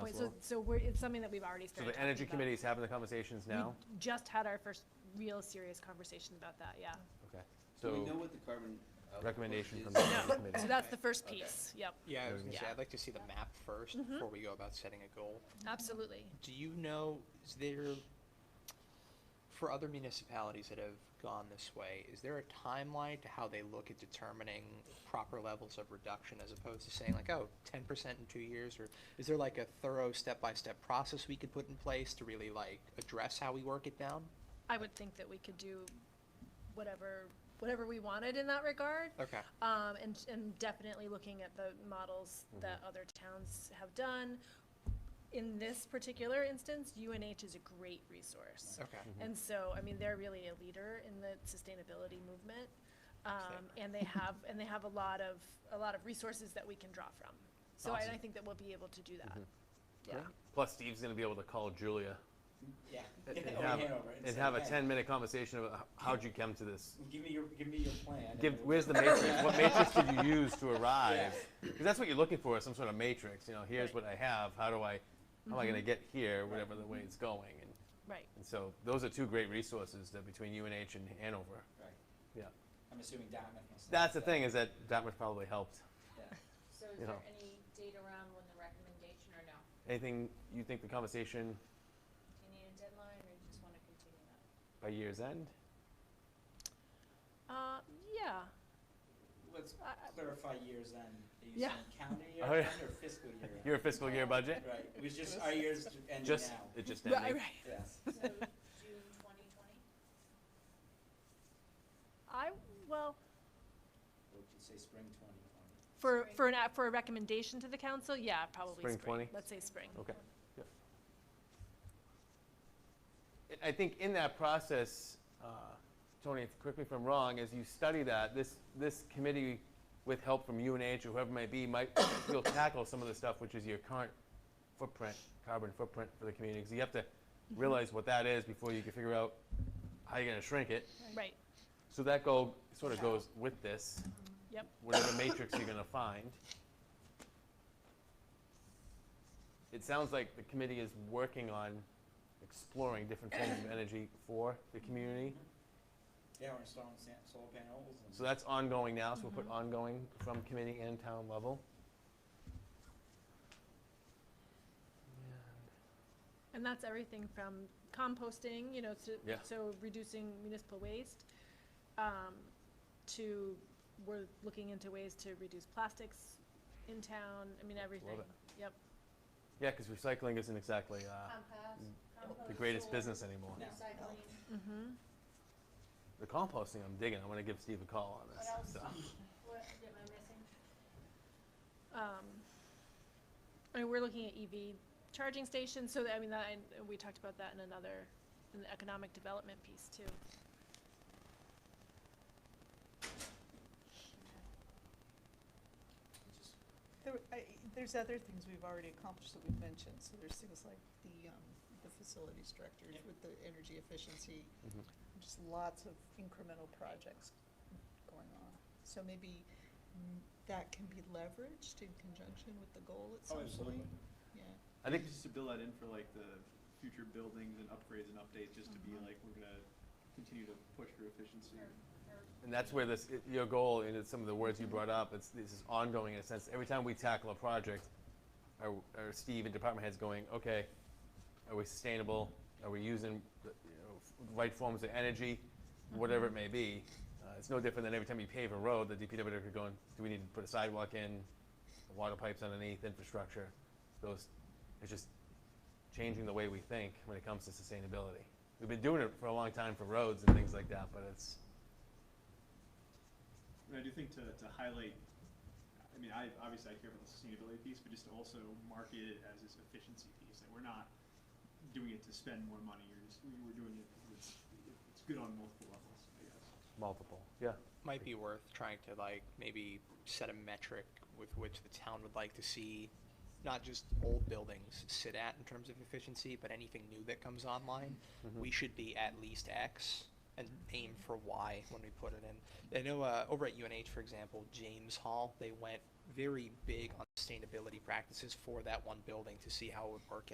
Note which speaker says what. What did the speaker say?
Speaker 1: point, so,
Speaker 2: well.
Speaker 1: so we're, it's something that we've already
Speaker 2: So
Speaker 1: started
Speaker 2: the
Speaker 1: talking
Speaker 2: energy
Speaker 1: about.
Speaker 2: committee is having the conversations
Speaker 1: We
Speaker 2: now?
Speaker 1: Just had our first real serious conversation about that, yeah.
Speaker 2: Okay.
Speaker 3: Do we know
Speaker 2: So
Speaker 3: what the carbon? output
Speaker 2: recommendation
Speaker 3: is?
Speaker 2: from the energy
Speaker 1: So
Speaker 2: committee.
Speaker 1: that's the first
Speaker 3: Okay.
Speaker 1: piece, yep,
Speaker 4: Yeah, I was gonna say,
Speaker 1: Yeah.
Speaker 4: I'd like to see the map first before we go about setting a goal.
Speaker 1: absolutely.
Speaker 4: Do you know, is there, for other municipalities that have gone this way, is there a timeline to how they look at determining proper levels of reduction as opposed to saying like, oh, ten percent in two years? Or is there like a thorough step-by-step process we could put in place to really like address how we work it down?
Speaker 1: I would think that we could do whatever, whatever we wanted in that regard.
Speaker 4: Okay.
Speaker 1: Um, and, and definitely looking at the models
Speaker 2: Mm-hmm.
Speaker 1: that other towns have done. In this particular instance, UNH is a great resource.
Speaker 4: Okay.
Speaker 1: And so, I mean, they're really a leader in the sustainability movement. Um, and they have, and they have a lot of, a lot of resources that we can draw from. So I, I
Speaker 4: Awesome.
Speaker 1: think that we'll be able to do that. Yeah.
Speaker 2: Plus Steve's gonna be able to call Julia
Speaker 3: Yeah.
Speaker 2: and
Speaker 3: Over
Speaker 2: have,
Speaker 3: Hanover
Speaker 2: and
Speaker 3: say,
Speaker 2: have a
Speaker 3: "Hey,
Speaker 2: ten-minute conversation about h- how'd you come to this?
Speaker 3: Give me your, give me your plan. and
Speaker 2: Give,
Speaker 3: we'll-
Speaker 2: where's the matrix? What matrix did you use to arrive? Because that's what you're looking for, is some sort of matrix, you know, here's
Speaker 1: Right.
Speaker 2: what I have, how do I, how am I
Speaker 3: Mm-hmm.
Speaker 2: gonna get here, whatever the way it's going? And
Speaker 1: Right.
Speaker 2: and so those are two great resources that between UNH and Hanover.
Speaker 3: Right.
Speaker 2: Yeah.
Speaker 3: I'm assuming Dartmouth. must
Speaker 2: That's the
Speaker 3: have
Speaker 2: thing, is that Dartmouth probably helped.
Speaker 3: Yeah.
Speaker 5: So
Speaker 2: you
Speaker 5: is there
Speaker 2: know.
Speaker 5: any date around when the recommendation or no?
Speaker 2: Anything you think the conversation
Speaker 5: Do you need a deadline or you just want to continue that?
Speaker 2: by year's end?
Speaker 1: Uh, yeah,
Speaker 3: Let's
Speaker 1: I- I-
Speaker 3: clarify years end. Are you
Speaker 1: Yeah.
Speaker 3: saying calendar year
Speaker 2: Oh,
Speaker 3: end
Speaker 2: yeah.
Speaker 3: or fiscal year end?
Speaker 2: Your fiscal year budget?
Speaker 3: Right, it was just, our year's ending now.
Speaker 2: Just, it just
Speaker 1: right,
Speaker 2: ended.
Speaker 1: right.
Speaker 3: Yes.
Speaker 5: So June twenty twenty?
Speaker 1: I, well,
Speaker 3: We could say spring twenty twenty.
Speaker 1: for,
Speaker 5: Spring.
Speaker 1: for an, a- for a recommendation to the council, yeah, probably
Speaker 2: Spring
Speaker 1: spring.
Speaker 2: 20?
Speaker 1: Let's say spring.
Speaker 2: Okay. yeah. I- I think in that process, uh, Tony, correct me if I'm wrong, as you study that, this, this committee with help from UNH or whoever it may be, might, will tackle some of the stuff which is your current footprint, carbon footprint for the community. 'Cause you have to realize what that is before you can figure out how you're gonna shrink it.
Speaker 1: Right,
Speaker 2: So that goal sort of goes with this.
Speaker 1: Yep.
Speaker 2: Whatever matrix you're gonna find. It sounds like the committee is working on exploring different forms of energy for the community.
Speaker 3: Yeah, we're installing sa- solar panels and.
Speaker 2: So that's ongoing now, so we'll put ongoing from committee and town level.
Speaker 1: and that's everything from composting, you know, to,
Speaker 2: Yeah.
Speaker 1: so reducing municipal waste, um, to, we're looking into ways to reduce plastics in town, I mean, everything.
Speaker 2: it.
Speaker 1: Yep,
Speaker 2: Yeah, because recycling isn't exactly uh,
Speaker 5: Compost, compost.
Speaker 2: the greatest
Speaker 5: soil,
Speaker 2: business anymore.
Speaker 3: No.
Speaker 5: Recycling,
Speaker 1: mm-hmm,
Speaker 2: The composting, I'm digging, I'm gonna give Steve a call on
Speaker 5: What
Speaker 2: this, so.
Speaker 5: what am I missing?
Speaker 1: um, I mean, we're looking at EV charging stations, so that, I mean, that, and we talked about that in another, in the economic development piece too.
Speaker 3: Just-
Speaker 6: There, were- I, there's other things we've already accomplished that we've mentioned, so there's things like the, um, the facilities directors
Speaker 3: Yep.
Speaker 6: with the energy efficiency.
Speaker 2: Mhm.
Speaker 6: Just lots of incremental projects going on. So maybe mm, that can be leveraged in conjunction with the goal at some
Speaker 3: Oh,
Speaker 6: point?
Speaker 3: absolutely.
Speaker 6: Yeah.
Speaker 2: I think
Speaker 7: Just to build that in for like the future buildings and upgrades and updates, just to be like, we're gonna continue to push for efficiency.
Speaker 2: And that's where this, i- your goal, and it's some of the words you brought up, it's, this is ongoing in a sense. Every time we tackle a project, our, our Steve and department heads going, okay, are we sustainable? Are we using, the, you know, f- right forms of energy? Whatever it may be. Uh, it's no different than every time you pave a road, the DPW could go and, do we need to put a sidewalk in? Water pipes underneath, infrastructure, those, it's just changing the way we think when it comes to sustainability. We've been doing it for a long time for roads and things like that, but it's,
Speaker 7: And I do think to, to highlight, I mean, I, obviously I care about the sustainability piece, but just to also market it as this efficiency piece, like we're not doing it to spend more money, or just, we- we're doing it, because it's, it's good on multiple levels, I guess.
Speaker 2: Multiple, yeah.
Speaker 4: might be worth trying to like maybe set a metric with which the town would like to see not just old buildings sit at in terms of efficiency, but anything new that comes online. We should be at least X and aim for Y when we put it in. I know uh, over at UNH, for example, James Hall, they went very big on sustainability practices for that one building to see how it would work